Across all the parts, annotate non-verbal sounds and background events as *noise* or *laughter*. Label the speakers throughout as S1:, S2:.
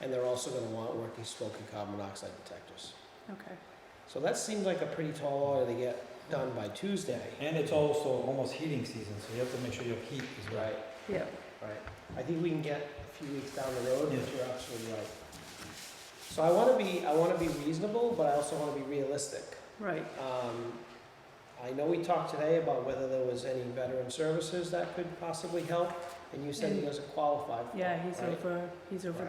S1: And they're also gonna want working smoke and carbon monoxide detectors.
S2: Okay.
S1: So that seems like a pretty tall order to get done by Tuesday.
S3: And it's also almost heating season, so you have to make sure you have heat as well.
S1: Right,
S2: Yeah.
S1: right. I think we can get a few weeks down the road, but
S3: Yeah.
S1: you're absolutely right. So I wanna be, I wanna be reasonable, but I also wanna be realistic.
S2: Right.
S1: Um, I know we talked today about whether there was any veteran services that could possibly help, and you said he doesn't qualify for
S2: Mm. Yeah.
S1: that,
S2: He's
S1: right?
S2: over. He's over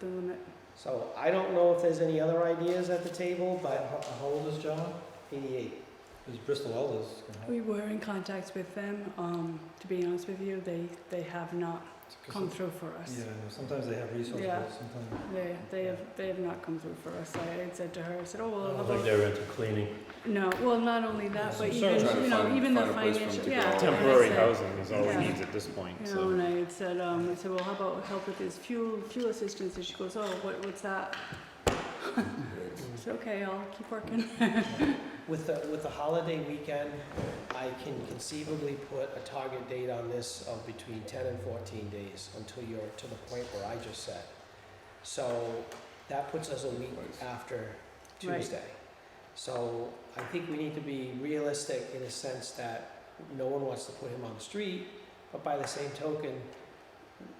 S2: the, the limit.
S1: So I don't know if there's any other ideas at the table,
S3: But
S1: but
S3: how, how old is John?
S1: eighty-eight.
S3: Is Bristol Elders can help.
S2: We were in contact with them. Um, to be honest with you, they they have not
S3: 'Cause
S2: come
S3: some-
S2: through for us.
S3: Yeah, sometimes they have resources,
S2: Yeah.
S3: but sometimes.
S2: They, they have they have not come through for us. I had said to her, I said, oh well,
S3: I
S2: how
S3: don't
S2: about
S4: Like they're into cleaning.
S2: No, well, not only that,
S3: Some
S2: but
S3: sort of-
S2: even,
S3: Trying to
S2: you know,
S5: find-
S2: even the
S5: find a place for them
S2: financial,
S5: to
S2: yeah.
S5: go.
S2: and I
S4: Temporary
S2: said-
S4: housing is all
S2: Yeah.
S4: he needs at this point,
S2: You know,
S4: so.
S2: and I said, um, I said, well, how about help with this fuel, fuel assistance? And she goes, oh, what, what's that? I said, okay, I'll keep working. *laughs*
S1: With the, with the holiday weekend, I can conceivably put a target date on this of between ten and fourteen days until you're to the point where I just said. So that puts us a week after
S2: Right.
S1: Tuesday. So I think we need to be realistic in a sense that no one wants to put him on the street, but by the same token,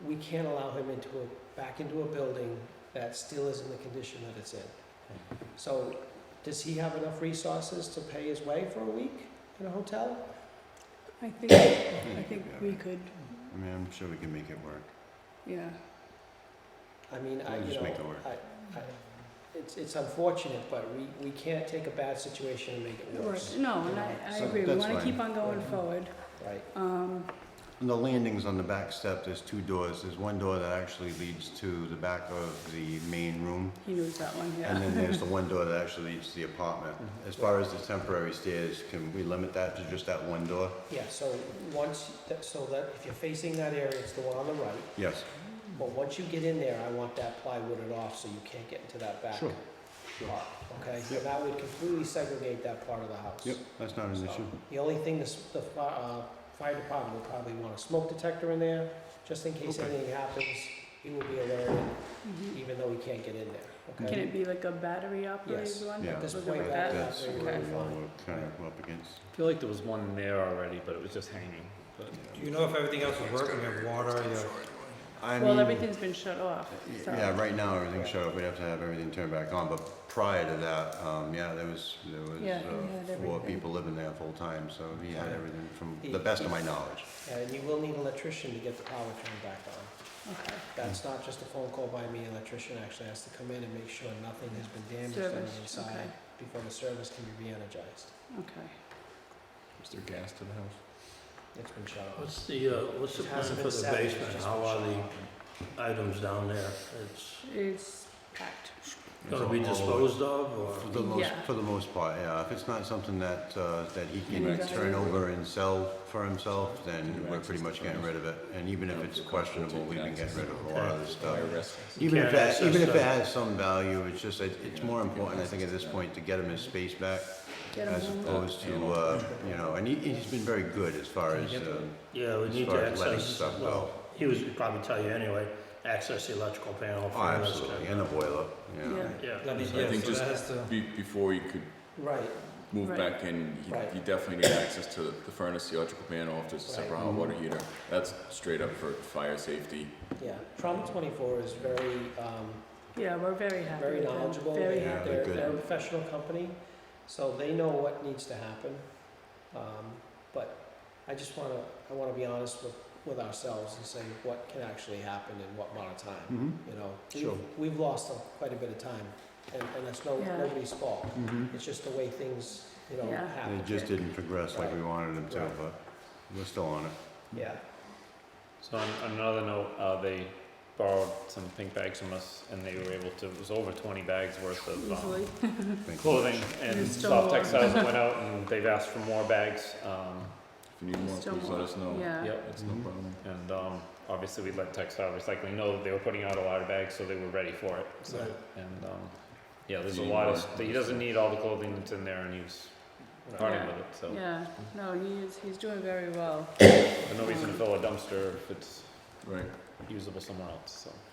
S1: we can't allow him into a, back into a building that still is in the condition that it's in.
S5: Hmm.
S1: So does he have enough resources to pay his way for a week in a hotel?
S2: I think, I think we could,
S5: I mean, I'm sure we can make it work.
S2: yeah,
S1: I mean, I,
S5: We'll
S1: you
S5: just
S1: know,
S5: make it work.
S1: I, I, it's, it's unfortunate, but we, we can't take a bad situation and make it worse,
S2: no, and I, I
S5: So
S2: agree, we
S5: that's
S2: wanna
S5: fine.
S2: keep on going forward.
S1: right?
S2: Um,
S5: On the landings on the back step, there's two doors. There's one door that actually leads to the back of the main room,
S2: he knows that one,
S5: and then
S2: yeah. Mm-hmm.
S5: there's
S2: *laughs*
S5: the one door that actually leads to the apartment. As far as the temporary stairs, can we limit that to just that one door?
S1: Yeah, so once, that- so that, if you're facing that area, it's the one on the right,
S5: Yes.
S1: but once you get in there, I want that plywooded off so you can't get into that back
S5: Sure.
S1: part, okay? So that would completely segregate that part of the house.
S5: Yep, that's not an
S1: So,
S5: issue.
S1: The only thing, the, s- the, fi- uh, fire department will probably want a smoke detector in there, just in case
S5: Okay.
S1: anything happens, he will be alerted,
S2: Mhm.
S1: even though we can't get in there,
S2: Can
S1: okay?
S2: it be like a battery operated
S1: Yes.
S2: one?
S5: Yeah.
S1: At this
S2: We'll go
S1: point,
S2: with
S1: that-
S2: that.
S5: That's where
S2: Okay.
S5: we're all kind of up against.
S4: I feel like there was one there already, but it was just hanging, but.
S3: Do you know if everything else is working? You have water, you have.
S5: I mean. uh,
S2: Well, everything's been shut off, so.
S5: Yeah, right now, everything's shut off, we'd have to have everything turned back on, but prior to that, um, yeah, there was, there was,
S2: Yeah,
S5: uh,
S2: he had
S5: four
S2: everything.
S5: people living there full-time, so he had
S1: Okay.
S5: everything from
S1: He-
S5: the best of my knowledge.
S1: And you will need an electrician to get the power turned back on.
S2: Okay.
S5: Mm.
S1: That's not just a phone call by me, an electrician actually has to come in and make sure nothing has been damaged on
S2: Service,
S1: the
S2: okay.
S1: inside before the service can be re-energized.
S2: Okay.
S4: Was there gas to the house?
S1: It's been shut off.
S6: What's the, uh, what's the
S1: It
S6: plan
S1: hasn't
S6: for
S1: been
S6: the
S1: set, it's
S6: basement?
S1: just
S6: How
S1: been
S6: are
S1: shut
S6: the
S1: off.
S6: items down there? It's
S2: It's packed.
S6: gonna be
S5: It's all-
S6: disposed of or?
S5: For the most,
S2: Yeah.
S5: for the most part, yeah, if it's not something that, uh, that he can
S2: Right.
S5: turn over and sell for himself, then
S4: Can you
S5: we're pretty
S4: access
S5: much
S4: the
S5: getting rid
S4: furnace?
S5: of it, and even if it's questionable, we've been getting rid of a lot of this
S7: Oh,
S5: stuff.
S6: You
S5: Even if,
S6: can't
S5: it-
S6: access
S5: even if it
S6: the-
S5: has some value, it's just, it- it's
S4: Yeah,
S5: more
S4: you can
S5: important, I think, at
S4: access
S5: this
S4: that.
S5: point, to get him his space back,
S2: Get them
S5: as
S2: home.
S5: opposed to, uh, you know, and he, he's been very good as far as, uh,
S6: Yeah, we
S5: as
S6: need
S5: far
S6: to
S5: as letting
S6: access,
S5: stuff
S6: well, he was, he'd probably tell you anyway, access the electrical panel.
S5: oh,
S6: for this
S5: absolutely,
S6: kind
S5: and a boiler, yeah.
S2: Yeah.
S6: of- Yeah.
S3: That is,
S6: So I
S3: yeah,
S6: think
S3: so
S6: just-
S3: that has to.
S7: Be- Before you could
S1: Right,
S7: move
S2: Right.
S7: back in, you,
S1: Right.
S7: you definitely need access to the furnace, the electrical panel, if there's a separate hot water heater. That's straight up for fire safety.
S1: yeah. Trauma twenty-four is very, um,
S2: Yeah, we're very happy.
S1: very
S2: with them.
S1: knowledgeable.
S2: Very
S1: They-
S2: happy.
S5: they're
S1: They're,
S5: good.
S1: they're a professional company, so they know what needs to happen. Um, But I just wanna, I wanna be honest with, with ourselves and say what can actually happen in what amount of time,
S5: Mhm,
S1: you know?
S5: Sure.
S1: We've- We've lost a- quite a bit of time, and, and that's no,
S2: Yeah.
S1: nobody's fault.
S5: mhm.
S1: It's just the way things, you know,
S2: Yeah.
S1: happen.
S5: It just didn't progress like
S1: Right.
S5: we wanted him to,
S1: Right.
S5: but we're still on it.
S1: Yeah,
S4: So on on another note, uh, they borrowed some pink bags from us and they were able to, it was over twenty bags worth of, um,
S2: Easily. *laughs*
S5: Thank you.
S4: clothing
S2: You
S4: and
S2: still
S4: soft
S2: want- *laughs*
S4: textiles that went out and they've asked for more bags, um,
S7: If you need more,
S2: Still
S7: please let us know.
S2: Yeah.
S4: yep.
S7: It's no
S5: Mhm.
S7: problem.
S4: And, um, obviously we let textile recycling know that they were putting out a lot of bags, so they were ready for it, so,
S3: Right.
S4: and, um, yeah, there's a
S7: Do you
S4: lot of,
S7: want-
S4: st- he doesn't need all the clothing that's in there and he was parting
S2: Yeah.
S4: with it, so.
S2: Yeah, no, he is, he's doing very well.
S4: There's no reason to fill a dumpster if it's
S7: Right.
S4: usable somewhere else, so.